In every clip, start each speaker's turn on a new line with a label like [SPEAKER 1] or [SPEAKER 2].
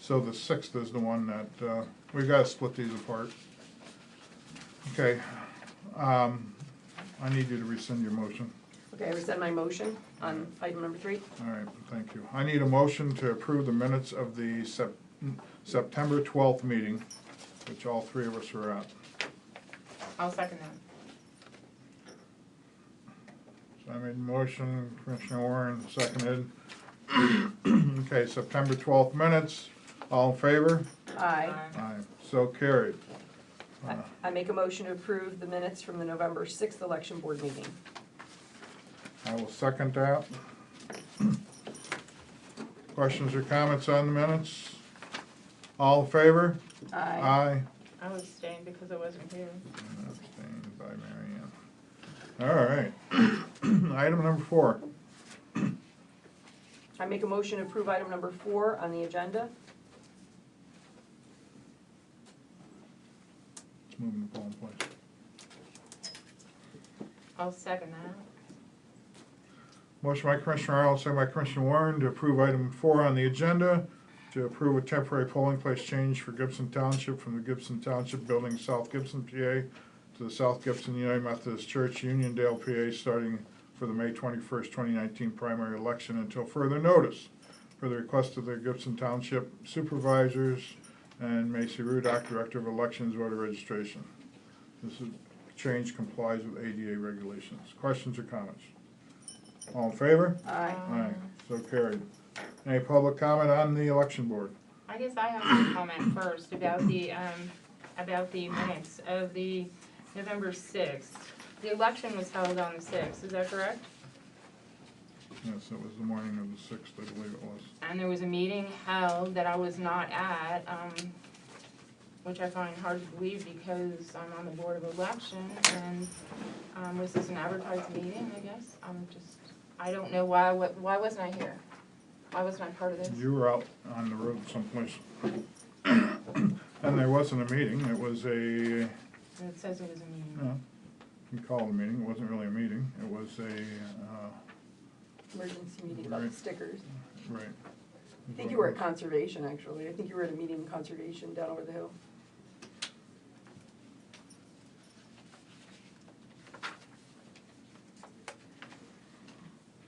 [SPEAKER 1] So the sixth is the one that, uh, we gotta split these apart. Okay, um, I need you to rescind your motion.
[SPEAKER 2] Okay, I rescind my motion on item number three.
[SPEAKER 1] All right, thank you. I need a motion to approve the minutes of the Sep- September twelfth meeting, which all three of us were at.
[SPEAKER 3] I'll second that.
[SPEAKER 1] So I made a motion, Commissioner Warren seconded. Okay, September twelfth minutes, all in favor?
[SPEAKER 2] Aye.
[SPEAKER 1] Aye, so carried.
[SPEAKER 2] I- I make a motion to approve the minutes from the November 6th election board meeting.
[SPEAKER 1] I will second that. Questions or comments on the minutes? All in favor?
[SPEAKER 2] Aye.
[SPEAKER 1] Aye.
[SPEAKER 3] I was staying because I wasn't here.
[SPEAKER 1] Abstained by Mary Ann. All right. Item number four.
[SPEAKER 2] I make a motion to approve item number four on the agenda.
[SPEAKER 1] Let's move the poll in place.
[SPEAKER 3] I'll second that.
[SPEAKER 1] Motion by Commissioner Arnold, second by Commissioner Warren to approve item four on the agenda, to approve a temporary polling place change for Gibson Township from the Gibson Township Building, South Gibson, PA, to the South Gibson United Methodist Church, Uniondale, PA, starting for the May twenty-first, twenty nineteen primary election until further notice, for the request of the Gibson Township Supervisors and Macy Rudock, Director of Elections Voter Registration. This is, change complies with ADA regulations. Questions or comments? All in favor?
[SPEAKER 2] Aye.
[SPEAKER 1] Aye, so carried. Any public comment on the election board?
[SPEAKER 3] I guess I have some comment first about the, um, about the minutes of the November sixth. The election was held on the sixth, is that correct?
[SPEAKER 1] Yes, it was the morning of the sixth, I believe it was.
[SPEAKER 3] And there was a meeting held that I was not at, um, which I find hard to believe because I'm on the Board of Election and, um, was this an advertised meeting, I guess? I'm just, I don't know why, wa- why wasn't I here? Why wasn't I part of this?
[SPEAKER 1] You were out on the road someplace. And there wasn't a meeting, it was a,
[SPEAKER 3] And It says it was a meeting.
[SPEAKER 1] no, you call it a meeting, it wasn't really a meeting, it was a, uh,
[SPEAKER 2] Emergency meeting about the
[SPEAKER 1] Right.
[SPEAKER 2] stickers.
[SPEAKER 1] right.
[SPEAKER 2] I think you were at Conservation, actually. I think you were at a meeting in Conservation down over the hill.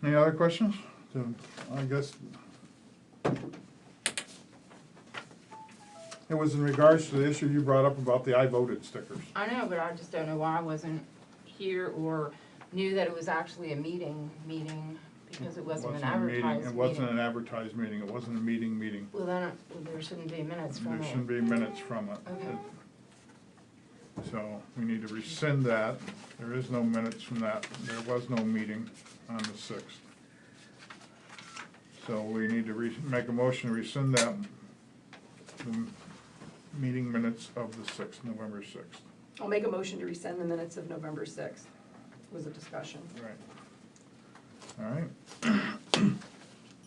[SPEAKER 1] Any other questions? So, I guess. It was in regards to the issue you brought up about the I voted stickers.
[SPEAKER 3] I know, but I just don't know why I wasn't here or knew that it was actually a meeting, meeting, because it wasn't an
[SPEAKER 1] a meeting-
[SPEAKER 3] advertised
[SPEAKER 1] It
[SPEAKER 3] meeting.
[SPEAKER 1] wasn't an advertised meeting, it wasn't a meeting meeting.
[SPEAKER 3] Well, then, uh, well, there shouldn't be minutes from
[SPEAKER 1] There
[SPEAKER 3] it.
[SPEAKER 1] shouldn't be minutes from it.
[SPEAKER 3] Okay.
[SPEAKER 1] So we need to rescind that. There is no minutes from that. There was no meeting on the sixth. So we need to re, make a motion to rescind that, the meeting minutes of the sixth, November sixth.
[SPEAKER 2] I'll make a motion to rescind the minutes of November 6th. It was a discussion.
[SPEAKER 1] Right. All right.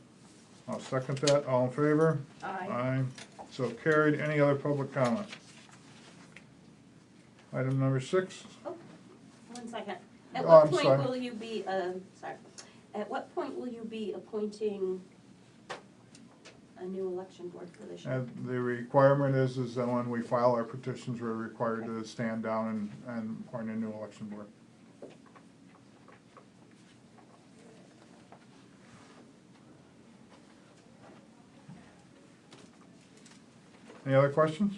[SPEAKER 1] I'll second that. All in favor?
[SPEAKER 2] Aye.
[SPEAKER 1] Aye. So carried. Any other public comment? Item number six.
[SPEAKER 4] Oh, One second. At
[SPEAKER 1] Oh,
[SPEAKER 4] what
[SPEAKER 1] I'm
[SPEAKER 4] point
[SPEAKER 1] sorry.
[SPEAKER 4] will you be, um, sorry, at what point will you be appointing a new election board for this year?
[SPEAKER 1] And the requirement is, is that when we file our petitions, we're required to stand down and, and appoint a new election board. Any other questions?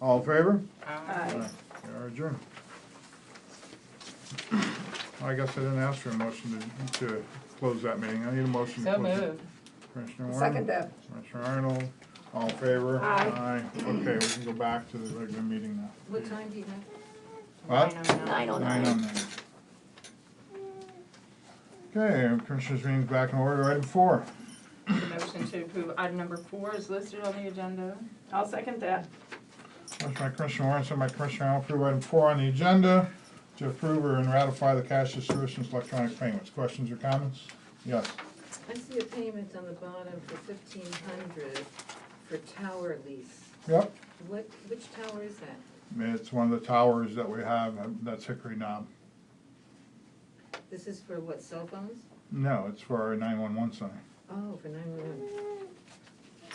[SPEAKER 1] All in favor?
[SPEAKER 3] Um,
[SPEAKER 2] Aye.
[SPEAKER 1] We are adjourned. I guess I didn't ask for a motion to, to close that meeting. I need a motion to
[SPEAKER 3] So
[SPEAKER 1] close it.
[SPEAKER 3] moved.
[SPEAKER 1] Commissioner Warren?
[SPEAKER 2] Second that.
[SPEAKER 1] Commissioner Arnold, all in favor?
[SPEAKER 2] Aye.
[SPEAKER 1] Aye. Okay, we can go back to the regular meeting now.
[SPEAKER 2] What time do you have?
[SPEAKER 1] What?
[SPEAKER 3] Nine oh nine.
[SPEAKER 1] Nine
[SPEAKER 2] Nine oh
[SPEAKER 1] oh nine. oh Okay, Commissioners' meeting's back in order. Item four.
[SPEAKER 3] The motion to approve item number four is listed on the agenda.
[SPEAKER 2] I'll second that.
[SPEAKER 1] Motion by Commissioner Warren, second by Commissioner Arnold, approve item four on the agenda to approve or and ratify the cash distributions electronic payments. Questions or comments? Yes.
[SPEAKER 5] I see a payment on the bottom for fifteen hundred for tower lease.
[SPEAKER 1] Yep.
[SPEAKER 5] What, which tower is that?
[SPEAKER 1] It's one of the towers that we have, uh, that's Hickory Knob.
[SPEAKER 5] This is for what, cell phones?
[SPEAKER 1] No, it's for our nine-one-one center.
[SPEAKER 5] Oh, for nine one one.